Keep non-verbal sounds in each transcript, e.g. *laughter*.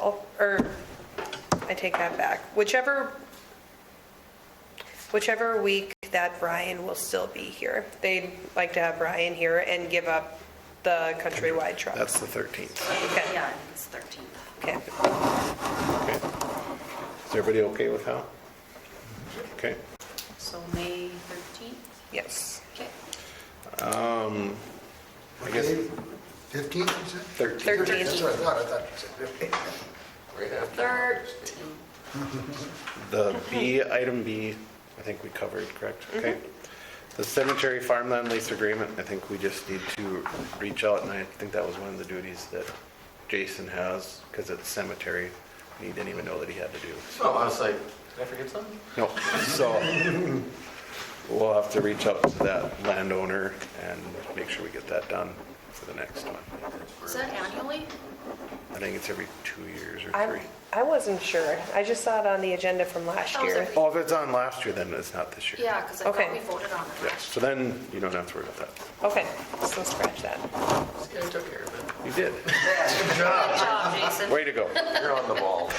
all, or, I take that back. Whichever, whichever week that Brian will still be here. They'd like to have Brian here and give up the countrywide truck. That's the 13th. Okay. Yeah, it's 13th. Okay. Okay. Is everybody okay with how? Okay. So May 13th? Yes. Okay. Um, I guess Fifteenth, you said? 13th. That's 13th. what I thought, I thought you said fifteenth. Thirteenth. The B, item B, I think we covered, correct? Okay. The cemetery farmland lease agreement, I think we just need to reach out, and I think that was one of the duties that Jason has, because it's cemetery, and he didn't even know that he had to do. Oh, I was like, did I forget something? No, so we'll have to reach out to that landowner and make sure we get that done for the next one. Is that annually? I think it's every two years or I, three. I wasn't sure. I just saw it on the agenda from last Oh, is year. it- Oh, if it's on last year, then it's not this year. Yeah, because I Okay. thought we voted on it Yeah, last so then you don't have to worry about that. Okay, so scratch that. See, I took care of it. You did. year. Good job, uh, *laughs* Jason. Way to go. *laughs* You're on the ball.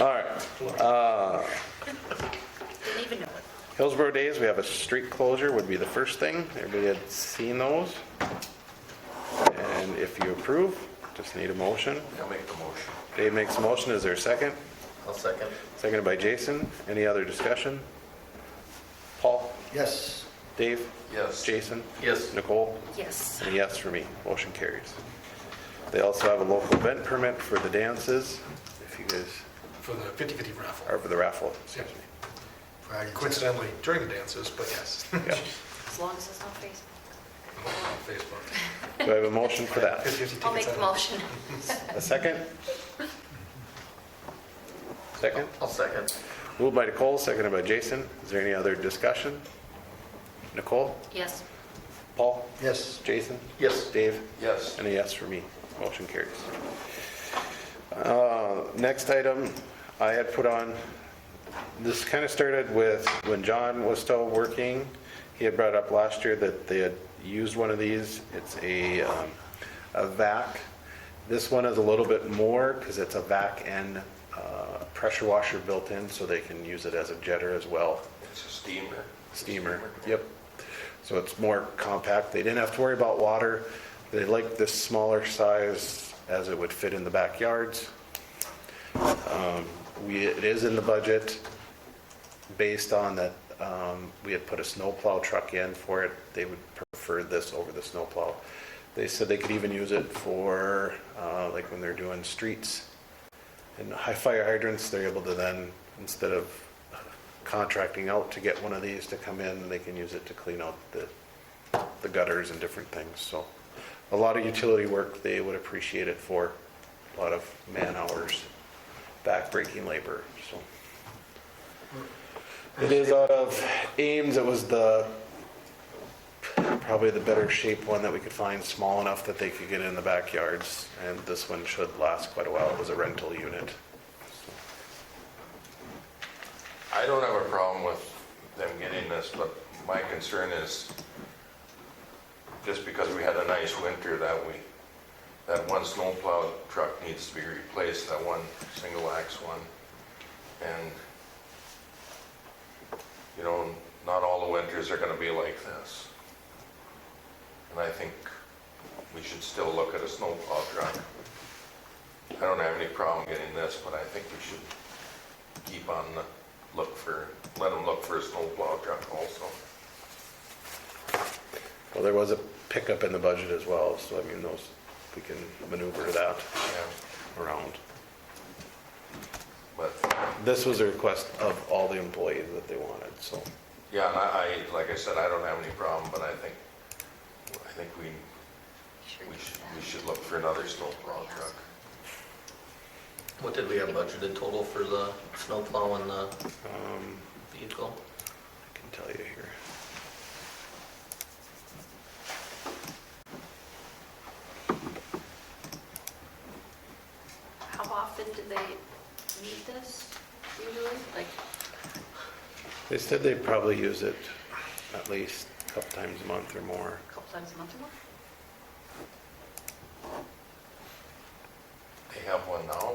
All right. Didn't even know it. Uh, Hillsborough Days, we have a street closure would be the first thing. Everybody had seen those. And if you approve, just need a motion. I'll make the motion. Dave makes a motion. Is there a second? I'll second. Seconded by Jason. Any other discussion? Paul? Yes. Dave? Yes. Jason? Yes. Nicole? Yes. And a yes for me. Motion carries. They also have a local event permit for the dances, if you guys, for the 50/50 raffle. or for the raffle. Yeah. Friday. Coincidentally, during the dances, but yes, *laughs* on Yeah. As long as it's not Facebook. Facebook. Do I have a motion for that? 50/50 I'll tickets make out. the motion. *laughs* A second? Second? I'll second. Moved by Nicole, seconded by Jason. Is there any other discussion? Nicole? Yes. Paul? Yes. Jason? Yes. Dave? Yes. And a yes for me. Motion carries. Uh, Next item I had put on, this kind of started with when John was still working. He had brought up last year that they had used one of these. It's a, um, a vac. This one is a little bit more because it's a vac and uh, pressure washer built in, so they can use it as a jetter as well It's a steamer. steamer. Yep. So it's more compact. They didn't have to worry about water. They liked this smaller size as it would fit in the backyards. Um, We, it is in the budget based on that, um, we had put a snowplow truck in for it. They would prefer this over the snowplow. They said they could even use it for, uh, like when they're doing streets and high fire hydrants, they're able to then, instead of contracting out to get one of these to come in, they can use it to clean out the, the gutters and different things, so. A lot of utility work they would appreciate it for, a lot of man hours, backbreaking labor, so. It is out of Ames, it was the, probably the better shaped one that we could find, small enough that they could get in the backyards. And this one should last quite a while. It was a rental unit. I don't have a problem with them getting this, but my concern is just because we had a nice winter that we, that one snowplow truck needs to be replaced, that one single axe one. And, you know, not all the winters are gonna be like this. And I think we should still look at a snowplow truck. I don't have any problem getting this, but I think we should keep on the look for, let them look for a snowplow truck also. Well, there was a pickup in the budget as well, so I mean, those, we can maneuver that Yeah. around. But, This was a request of all the employees that they wanted, so. yeah, and I, I, like I said, I don't have any problem, but I think, I think we, Sure we you should, can. we should look for another snowplow truck. What did we have budgeted total for the snowplow and the um, vehicle? I can tell you here. How often do they need this usually? Like, They said they probably use it at least a couple times a month or more. a couple times a month or more? They have one now?